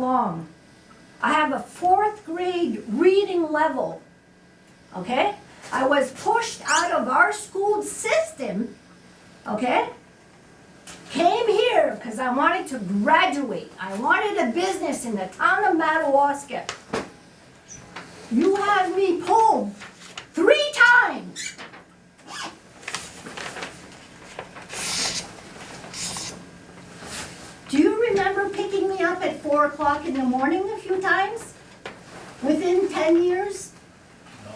along. I have a fourth grade reading level. Okay? I was pushed out of our school system. Okay? Came here because I wanted to graduate. I wanted a business in the town of Madawaska. You have me pulled three times. Do you remember picking me up at four o'clock in the morning a few times? Within ten years? No.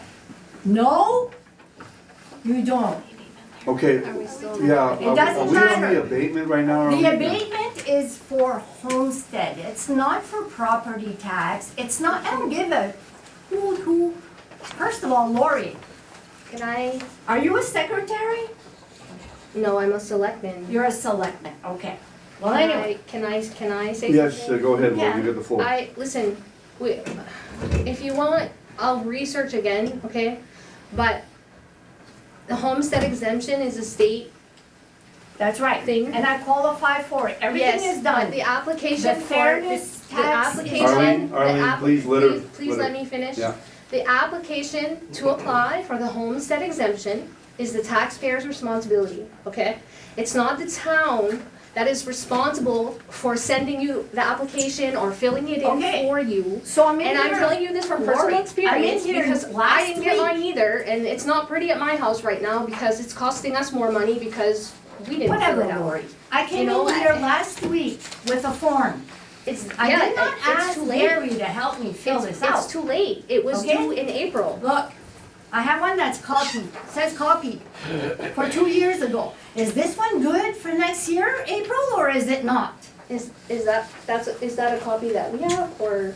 No? You don't. Okay, yeah. um, are- It doesn't Are we matter. on the abatement right now? or are we- The abatement is for homestead, it's not for property tax, it's not, I don't give a who, who. First of all, Lori, Can I? are you a secretary? No, I'm a selectman. You're a selectman, okay. Well, anyway, Can I, can I say something? Yes, uh, go ahead, Lou, Yeah. you get the floor. I, listen, we, if you want, I'll research again, okay? But the homestead exemption is a state that's right, Thing. and I qualify for it, everything Yes, is but done. The The application for. fairness the- tax is- The application. Arlene, the Arlene, app- please let her- please- Please let let her- me finish. yeah. The application to apply for the homestead exemption is the taxpayer's responsibility, okay? It's not the town that is responsible for sending you the application or filling it in Okay. for you. So I'm in And I'm here- telling you this from Lori, I'm personal in experience here because I last didn't get week. mine either. And it's not pretty at my house right now because it's costing us more money because we didn't fill it Whatever, out. Lori, I came You know in here what? last week with a form. It's, I yeah, did not it- it's ask too late. Larry to help me fill It's, this out. it's too late. It was Okay? due in April. Look, I have one that's copied, says copied for two years ago. Is this one good for next year, April, or is it not? Is is that that's is that a copy that we have or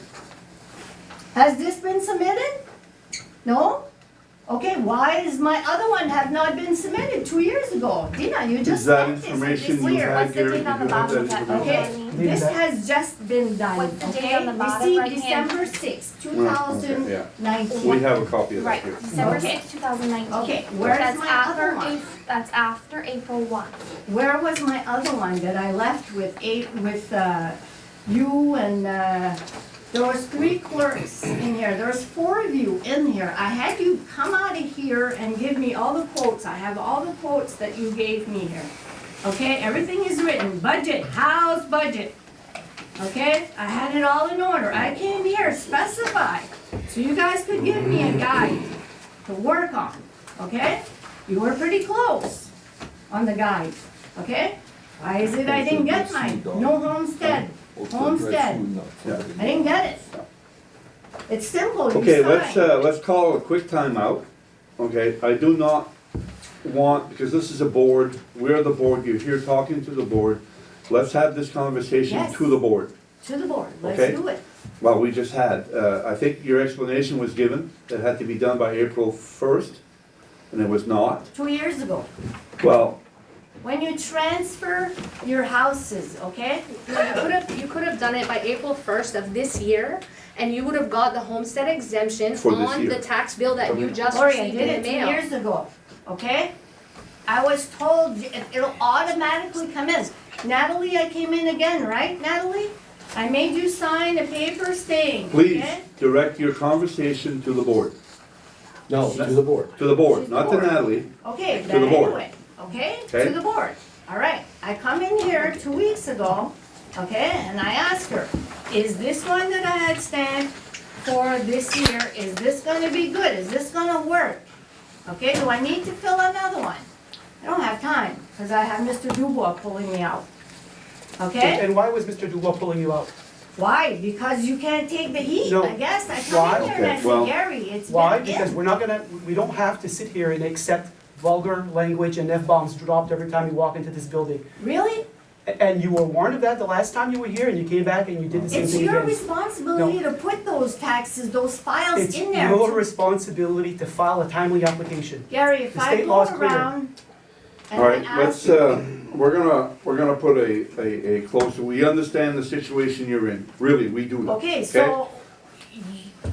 Has this been submitted? No? Okay, why is my other one have not been submitted two years ago? Dina, you just Is that sent this, information it's you clear. had, What's the Gary? date Did you on the have bottom of that that? information? Okay, this has just been done, What's the date okay? on the bottom Received right hand? December sixth, two Right, okay, thousand yeah. We nineteen. have a copy of that Right, here. December Okay. sixth, two thousand nineteen. Okay, where is my other one? That's after April one. Where was my other one that I left with eight, with, uh, you and, uh, there was three clerks in here, there was four of you in here. I had you come out of here and give me all the quotes, I have all the quotes that you gave me here. Okay, everything is written, budget, house budget. Okay, I had it all in order, I came here specified, so you guys could give me a guide to work on, okay? You were pretty close on the guide, okay? Why is it I didn't get mine? No homestead, homestead. I didn't get it. It's simple, you Okay, let's, sign. uh, let's call a quick timeout. Okay, I do not want, because this is a board, we're the board, you're here talking to the board. Let's have this conversation Yes. to the board. To the board, okay. let's do it. Well, we just had, uh, I think your explanation was given, that had to be done by April first, and it was not. Two years ago, Well, when you transfer your houses, okay? No, you could have you could have done it by April first of this year and you would have got the homestead exemption For this on year. the tax bill that you just Lori, I received did in it the two mail. years ago, okay? I was told it- it'll automatically come in. Natalie, I came in again, right, Natalie? I made you sign a paper saying, please okay? direct your conversation to the board, No, to the board. to the board, To the not to board. Natalie. Okay, the then board. anyway, okay, to Okay. the board. All right, I come in here two weeks ago, okay, and I ask her, is this one that I had stamped for this year, is this gonna be good, is this gonna work? Okay, do I need to fill another one? I don't have time, because I have Mr. Dubois pulling me out. Okay, And why was Mr. Dubois pulling you out? why? Because you can't take the heat, No. I guess, I Why? come in here and Okay, I well- say, Gary, it's been Why? in." Because we're not gonna, we don't have to sit here and accept vulgar language and F-bombs dropped every time you walk into this building. Really? A- And you were warned of that the last time you were here and you came back and you did the same It's thing your again. responsibility to put those taxes, those files It's in there. your responsibility to file a timely application. Gary, if The I state go law is clear. around and All I right, let's, ask, uh, we're gonna, we're gonna put a, a, a close, we understand the situation you're in, really, we do. okay, so,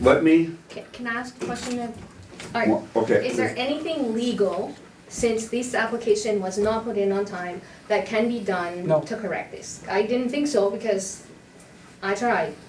Let me, Ca- Can I ask a question then? Alright, okay. is there anything legal, since this application was not put in on time, that can be done No. to correct this? I didn't think so because I tried.